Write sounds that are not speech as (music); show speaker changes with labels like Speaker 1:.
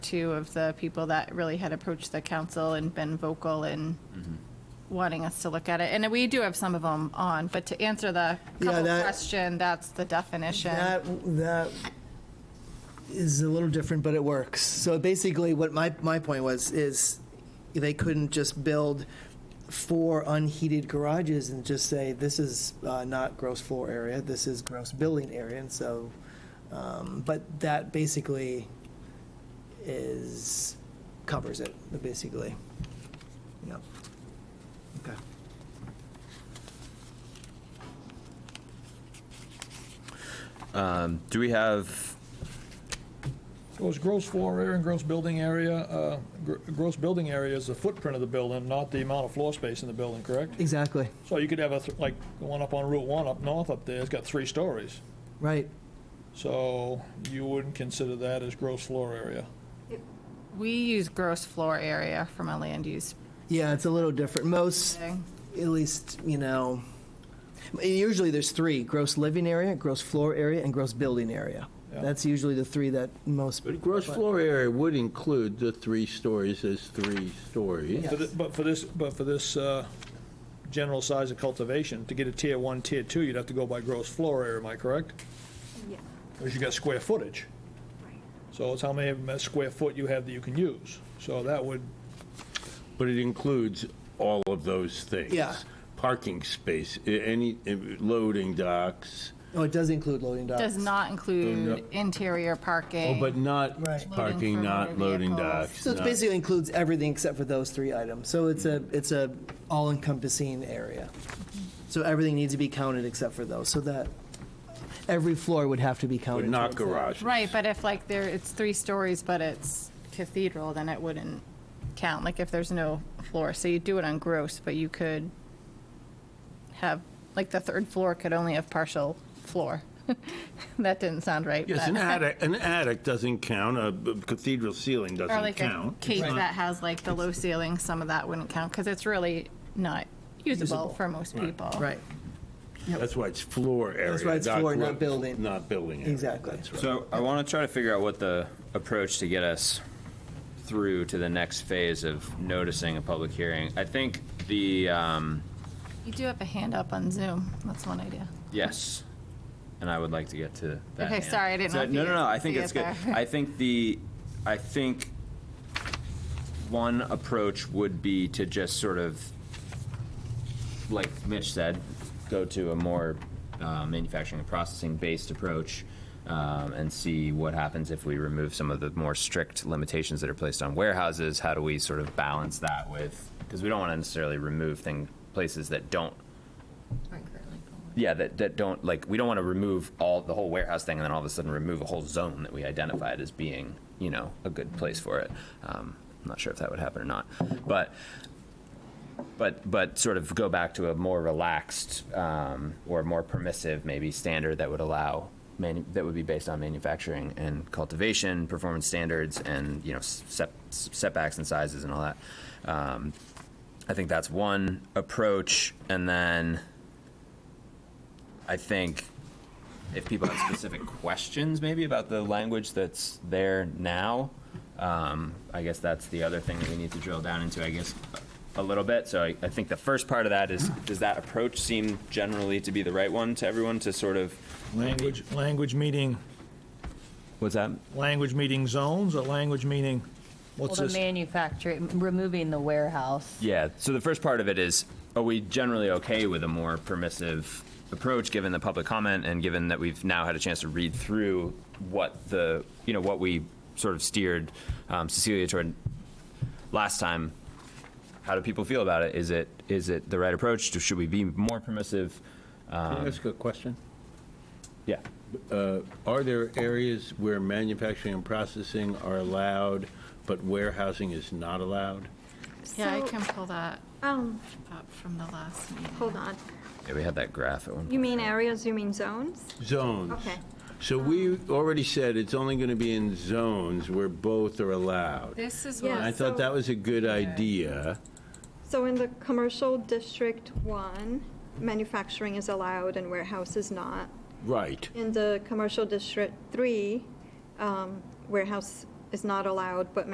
Speaker 1: two of the people that really had approached the council and been vocal in
Speaker 2: Mm-hmm.
Speaker 1: wanting us to look at it. And we do have some of them on, but to answer the
Speaker 3: Yeah,
Speaker 1: couple
Speaker 3: that-
Speaker 1: question, that's the definition.
Speaker 3: That, that is a little different, but it works. So basically, what my, my point was, is they couldn't just build four unheated garages and just say, this is uh, not gross floor area, this is gross building area, and so, um, but that basically is, covers it, basically. Yep. Okay.
Speaker 4: Um, Do we have,
Speaker 5: Well, it's gross floor area and gross building area. uh, gr- Gross building area is the footprint of the building, not the amount of floor space in the building, correct?
Speaker 3: Exactly,
Speaker 5: So you could have a, th- like, the one up on Route 1 up north up there, it's got three stories.
Speaker 3: right.
Speaker 5: So you wouldn't consider that as gross floor area.
Speaker 1: We use gross floor area from a land use
Speaker 3: Yeah, it's a little different. Most,
Speaker 1: thing.
Speaker 3: at least, you know, usually there's three, gross living area, gross floor area, and gross building area.
Speaker 5: Yeah.
Speaker 3: That's usually the three that most.
Speaker 2: But gross floor area would include the three stories as three stories.
Speaker 5: For thi- But for this, but for this uh, general size of cultivation, to get a tier 1, tier 2, you'd have to go by gross floor area, am I correct?
Speaker 6: Yeah,
Speaker 5: Because you got square footage.
Speaker 6: right.
Speaker 5: So it's how many square foot you have that you can use. So that would
Speaker 2: But it includes all of those things.
Speaker 3: Yeah.
Speaker 2: Parking space, i- any, i- loading docks,
Speaker 3: Oh, it does include loading docks.
Speaker 1: Does not include
Speaker 2: Loading up.
Speaker 1: interior
Speaker 2: Oh,
Speaker 1: parking.
Speaker 2: but not
Speaker 3: Right. Loading
Speaker 1: for
Speaker 2: parking, not
Speaker 1: motor
Speaker 2: loading
Speaker 1: vehicles.
Speaker 2: docks.
Speaker 3: So it
Speaker 2: not-
Speaker 3: basically includes everything except for those three items. So it's a,
Speaker 2: Mm-hmm.
Speaker 3: it's a all-encompassing area. So everything needs to be counted except for those, so that every floor would have to be counted.
Speaker 2: But not
Speaker 3: towards that.
Speaker 2: garages.
Speaker 1: Right, but if like there, it's three stories, but it's cathedral, then it wouldn't count, like if there's no floor. So you do it on gross, but you could have, like the third floor could only have partial floor. (laughs) That didn't sound right.
Speaker 2: Yes, an
Speaker 1: but-
Speaker 2: attic, an attic doesn't count, a b- cathedral
Speaker 1: (laughs)
Speaker 2: ceiling
Speaker 1: Or
Speaker 2: doesn't
Speaker 1: like a
Speaker 2: count.
Speaker 1: cake that has like the low ceiling, some of that wouldn't count, because it's really not usable
Speaker 3: Usable.
Speaker 1: for most people.
Speaker 3: Right,
Speaker 2: That's why it's floor area.
Speaker 3: why it's floor, not
Speaker 2: gro-
Speaker 3: building.
Speaker 2: Not building area.
Speaker 3: Exactly.
Speaker 2: That's right.
Speaker 4: so I want to try to figure out what the approach to get us through to the next phase of noticing a public hearing. I think the, um,
Speaker 1: You do have a hand up on Zoom, that's one idea.
Speaker 4: yes, and I would like to get to that.
Speaker 1: Okay,
Speaker 4: hand.
Speaker 1: sorry, I didn't
Speaker 4: So-
Speaker 1: know if
Speaker 4: No,
Speaker 1: you
Speaker 4: no, no, I
Speaker 1: could
Speaker 4: think
Speaker 1: see
Speaker 4: it's
Speaker 1: it
Speaker 4: good.
Speaker 1: there.
Speaker 4: I think the, I think one approach would be to just sort of, like Mitch said, go to a more uh, manufacturing and processing-based approach um, and see what happens if we remove some of the more strict limitations that are placed on warehouses. How do we sort of balance that with, because we don't want to necessarily remove thing, places that don't yeah, that, that don't, like, we don't want to remove all, the whole warehouse thing and then all of a sudden remove a whole zone that we identified as being, you know, a good place for it. Um, I'm not sure if that would happen or not, but, but, but sort of go back to a more relaxed, um, or more permissive maybe standard that would allow manu- that would be based on manufacturing and cultivation, performance standards and, you know, set, setbacks and sizes and all that. Um, I think that's one approach and then. I think if people have specific questions, maybe about the language that's there now, um, I guess that's the other thing that we need to drill down into, I guess, a little bit. So I, I think the first part of that is, does that approach seem generally to be the right one to everyone to sort of?
Speaker 5: Language, language meaning,
Speaker 4: What's that?
Speaker 5: language meaning zones, or language meaning,
Speaker 7: Well,
Speaker 5: what's
Speaker 7: the
Speaker 5: this?
Speaker 7: manufacturing, removing the warehouse.
Speaker 4: Yeah, so the first part of it is, are we generally okay with a more permissive approach, given the public comment and given that we've now had a chance to read through what the, you know, what we sort of steered um, Cecilia toward last time? How do people feel about it? Is it, is it the right approach? Should we be more permissive?
Speaker 2: Can I ask a question?
Speaker 4: Yeah.
Speaker 2: Are there areas where manufacturing and processing are allowed, but warehousing is not allowed?
Speaker 1: Yeah, I
Speaker 6: So-
Speaker 1: can pull that
Speaker 6: Um,
Speaker 1: up from the last meeting.
Speaker 6: hold on.
Speaker 4: Yeah, we had that graph at one
Speaker 6: You
Speaker 4: point.
Speaker 6: mean areas, you mean zones?
Speaker 2: Zones.
Speaker 6: Okay.
Speaker 2: So we already said it's only going to be in zones where both are allowed.
Speaker 1: This is
Speaker 6: Yeah.
Speaker 1: what
Speaker 2: And I thought that was a good idea.
Speaker 6: So in the commercial district one, manufacturing is allowed and warehouse is not.
Speaker 2: Right.
Speaker 6: In the commercial district three, um, warehouse is not allowed, but